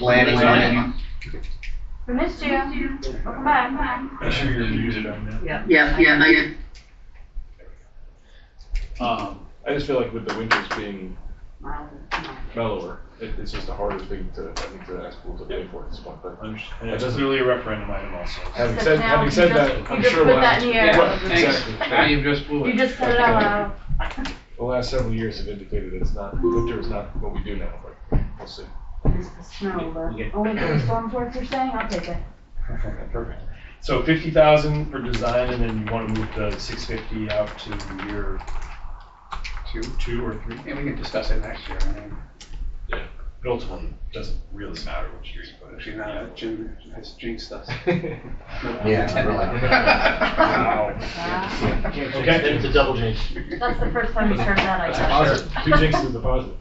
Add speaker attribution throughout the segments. Speaker 1: Planning.
Speaker 2: Planning.
Speaker 3: We missed you. Welcome back.
Speaker 2: Make sure you're muted on that.
Speaker 4: Yeah, yeah, I,
Speaker 2: Um, I just feel like with the winters being mellower, it, it's just a harder thing to, I think, to ask people to pay for at this point, but.
Speaker 5: And it's clearly a referendum item also.
Speaker 2: Having
Speaker 3: Because
Speaker 2: said,
Speaker 3: now
Speaker 2: having
Speaker 3: you
Speaker 2: said
Speaker 3: just-
Speaker 2: that,
Speaker 3: you
Speaker 2: I'm
Speaker 3: just
Speaker 2: sure
Speaker 3: put
Speaker 2: we'll
Speaker 3: that
Speaker 2: ask-
Speaker 3: in the air.
Speaker 2: Right,
Speaker 1: Yeah, thanks. Now
Speaker 2: Exactly.
Speaker 1: you just blew
Speaker 3: You
Speaker 1: it.
Speaker 3: just said it out loud.
Speaker 2: The last several years have indicated it's not, winter is not what we do now, but we'll see.
Speaker 3: It's the snow, but only the storm force you're saying, I'll take it.
Speaker 5: Perfect. So fifty thousand for design, and then you wanna move the six fifty out to year
Speaker 1: Two.
Speaker 5: two or three?
Speaker 1: And we can discuss it next year. I mean,
Speaker 5: But ultimately, it doesn't really matter which year you put it.
Speaker 1: Actually, now that Jim has jinxed us.
Speaker 5: Wow. Okay.
Speaker 6: It's a double jinx.
Speaker 3: That's the first time we heard that,
Speaker 2: That's a
Speaker 3: I guess.
Speaker 2: positive, two jinxes is a positive.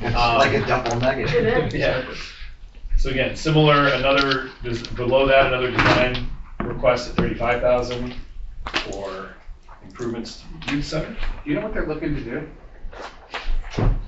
Speaker 6: It's like a double
Speaker 3: It
Speaker 6: nugget.
Speaker 3: is.
Speaker 5: Yeah. So again, similar, another, des- below that, another design request at thirty-five thousand for improvements to youth center?
Speaker 1: You know what they're looking to do?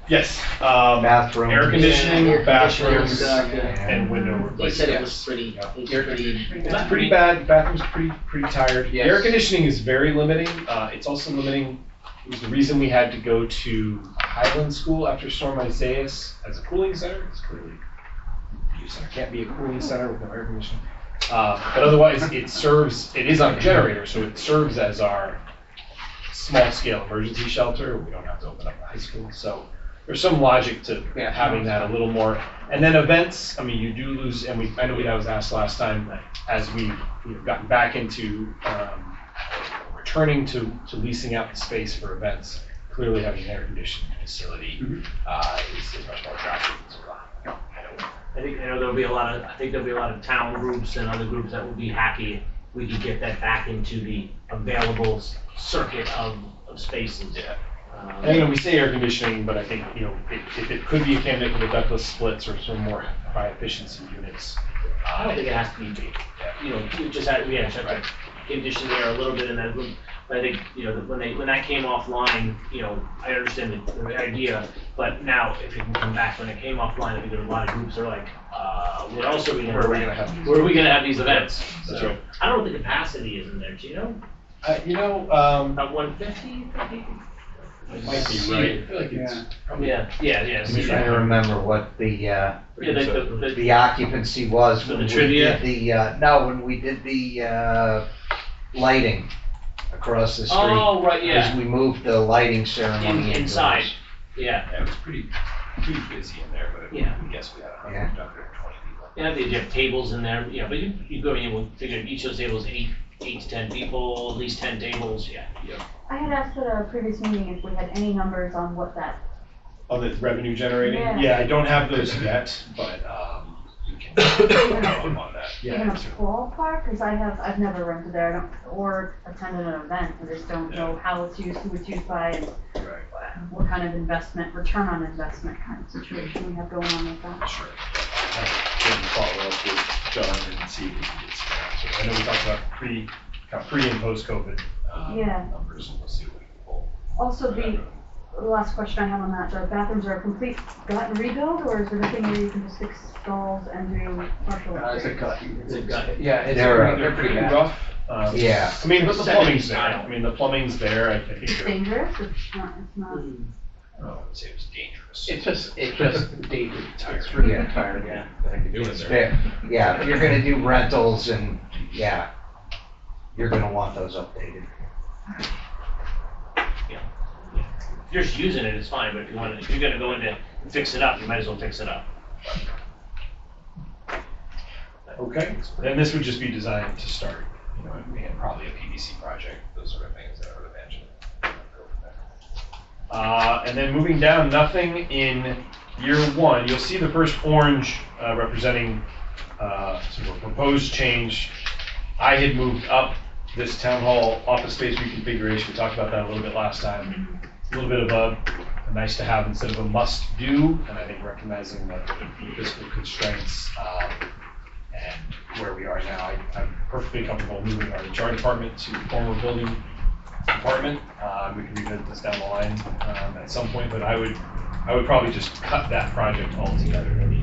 Speaker 5: Yes, um,
Speaker 6: Bathroom.
Speaker 5: air conditioning, bathrooms,
Speaker 6: Yeah.
Speaker 5: and window
Speaker 7: He
Speaker 5: replacement.
Speaker 7: uh, said it was pretty, it was
Speaker 1: Air
Speaker 7: pretty.
Speaker 5: It's pretty bad, bathroom's pretty, pretty tired. The Air
Speaker 1: Yes.
Speaker 5: conditioning is very limiting, uh, it's also limiting, it was the reason we had to go to Highland School after Storm Isaias as a cooling center, it's clearly, youth center can't be a cooling center with no air conditioning. Uh, but otherwise, it serves, it is on a generator, so it serves as our small-scale emergency shelter, we don't have to open up the high school, so there's some logic to
Speaker 1: Yeah.
Speaker 5: having that a little more. And then events, I mean, you do lose, and we, I know that was asked last time, as we, you know, gotten back into, um, returning to, to leasing out the space for events, clearly having an air conditioning facility,
Speaker 1: Mhm.
Speaker 5: uh, is, is much more attractive to a lot.
Speaker 6: I think, you know, there'll be a lot of, I think there'll be a lot of town groups and other groups that will be happy if we could get that back into the available s- circuit of, of spaces.
Speaker 5: Yeah.
Speaker 6: Um,
Speaker 5: And, you know, we say air conditioning, but I think, you know, if, if it could be a candidate for the ductless splits or some more high efficiency units.
Speaker 6: I
Speaker 5: uh,
Speaker 6: don't think it has to be big, you know, we just had, we had such a condition there a little bit in that room. But I think, you know, that when they, when that came offline, you know, I understand the, the idea, but now if it can come back, when it came offline, I think there were a lot of groups that are like, uh, what else are we
Speaker 5: Where
Speaker 6: gonna,
Speaker 5: are we gonna
Speaker 6: rent?
Speaker 5: have these?
Speaker 6: where are we gonna have these events?
Speaker 5: That's
Speaker 6: So,
Speaker 5: right.
Speaker 6: I don't know what the capacity is in there, do you know?
Speaker 5: Uh, you know, um,
Speaker 6: About one fifty?
Speaker 5: It might be right. I feel like it's
Speaker 1: Yeah.
Speaker 5: probably.
Speaker 6: Yeah, yeah, yeah.
Speaker 5: Let
Speaker 6: so
Speaker 5: me
Speaker 6: yeah.
Speaker 5: try
Speaker 6: Yeah,
Speaker 5: it.
Speaker 6: like
Speaker 5: Right.
Speaker 6: the-
Speaker 5: I
Speaker 6: the-
Speaker 5: Yeah.
Speaker 6: Yeah,
Speaker 5: don't
Speaker 6: the-
Speaker 5: remember.
Speaker 6: remember
Speaker 4: what the, uh, the occupancy was
Speaker 6: For
Speaker 4: when
Speaker 6: the
Speaker 4: we
Speaker 6: trivia?
Speaker 4: did the, uh, no, when we did the, uh, lighting across the street.
Speaker 6: Oh, right,
Speaker 4: Because
Speaker 6: yeah,
Speaker 4: we moved the lighting
Speaker 6: In-
Speaker 4: ceremony
Speaker 6: inside,
Speaker 4: indoors.
Speaker 6: yeah.
Speaker 5: Yeah, it was pretty, pretty busy in there, but
Speaker 6: Yeah.
Speaker 5: I guess we had a
Speaker 4: Yeah.
Speaker 5: hundred, hundred and twenty people.
Speaker 6: You know, they have tables in there, yeah, but you, you go in, and we'll figure each of those tables, eight, eight to ten people, at least ten tables, yeah.
Speaker 3: I had asked at a previous meeting if we had any numbers on what that,
Speaker 5: Oh, the revenue generating?
Speaker 3: Yeah.
Speaker 5: Yeah, I don't have those yet, but, um, we can follow up on that.
Speaker 3: even
Speaker 5: Yeah.
Speaker 3: a ballpark, because I have, I've never rented there, I don't, or attended an event, I just don't know how it's used, who it's used by, and
Speaker 5: Right.
Speaker 3: what kind of investment, return on investment kind of situation we have going on with that.
Speaker 5: Sure. Can follow up with John and see if we can get some answers. I know we talked about pre, kind of pre and post COVID, uh,
Speaker 3: Yeah.
Speaker 5: numbers, and we'll see what we can pull.
Speaker 3: Also, the the last question I have on that, the bathrooms are a complete gut rebuild, or is it a thing where you can just fix stalls and do partial
Speaker 1: Uh, It's a
Speaker 3: upgrades?
Speaker 1: cut.
Speaker 6: It's a gut.
Speaker 1: Yeah, it's,
Speaker 4: They're, uh,
Speaker 1: pretty- they're pretty bad.
Speaker 5: rough. Um,
Speaker 4: Yeah.
Speaker 5: I mean, but the
Speaker 6: Second
Speaker 5: plumbing's there.
Speaker 6: tile.
Speaker 5: I mean, the plumbing's there. I I think.
Speaker 3: It's
Speaker 5: they're-
Speaker 3: dangerous, it's not, it's not,
Speaker 5: I don't know, I would say it was dangerous.
Speaker 1: It's just, it's just dated. It's
Speaker 4: really
Speaker 1: really
Speaker 4: Yeah.
Speaker 1: tired, yeah.
Speaker 4: It's fair. Yeah, if you're gonna do rentals and, yeah, you're gonna want those updated.
Speaker 6: If you're just using it, it's fine, but if you want, if you're gonna go in to fix it up, you might as well fix it up.
Speaker 5: Okay, and this would just be designed to start, you know, and probably a PVC project, those sort of things that I would imagine. Uh, and then moving down, nothing in year one, you'll see the first orange, uh, representing, uh, sort of a proposed change. I had moved up this town hall office space reconfiguration, we talked about that a little bit last time. A little bit of a, a nice to have instead of a must do, and I think recognizing the fiscal constraints, uh, and where we are now, I- I'm perfectly comfortable moving our HR department to the former building department. Uh, We can revisit this down the line um, at some point, but I would, I would probably just cut that project altogether. It'll be